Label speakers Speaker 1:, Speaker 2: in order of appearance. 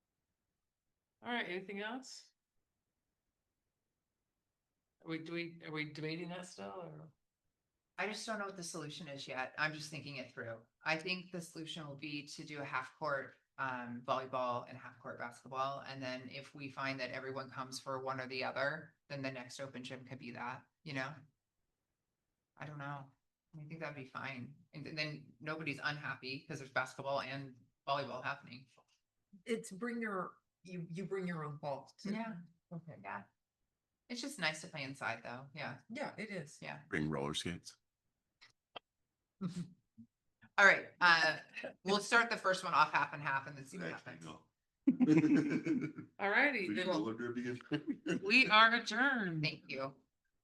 Speaker 1: All right, anything else? Are we, do we, are we debating that still or?
Speaker 2: I just don't know what the solution is yet. I'm just thinking it through. I think the solution will be to do a half court um volleyball and half court basketball. And then if we find that everyone comes for one or the other, then the next open gym could be that, you know? I don't know. I think that'd be fine. And th- then nobody's unhappy because there's basketball and volleyball happening.
Speaker 3: It's bring your, you, you bring your own balls. to-
Speaker 2: Yeah.
Speaker 3: Okay,
Speaker 2: Yeah. It's just nice to play inside though. Yeah.
Speaker 3: yeah, it is.
Speaker 2: Yeah.
Speaker 4: Bring roller skates.
Speaker 2: All right. Uh, we'll start the first one off half and half and then see what
Speaker 4: Actually,
Speaker 2: happens.
Speaker 4: no.
Speaker 1: All righty,
Speaker 4: We
Speaker 1: then
Speaker 4: can deliver it again.
Speaker 1: we are adjourned.
Speaker 2: Thank you.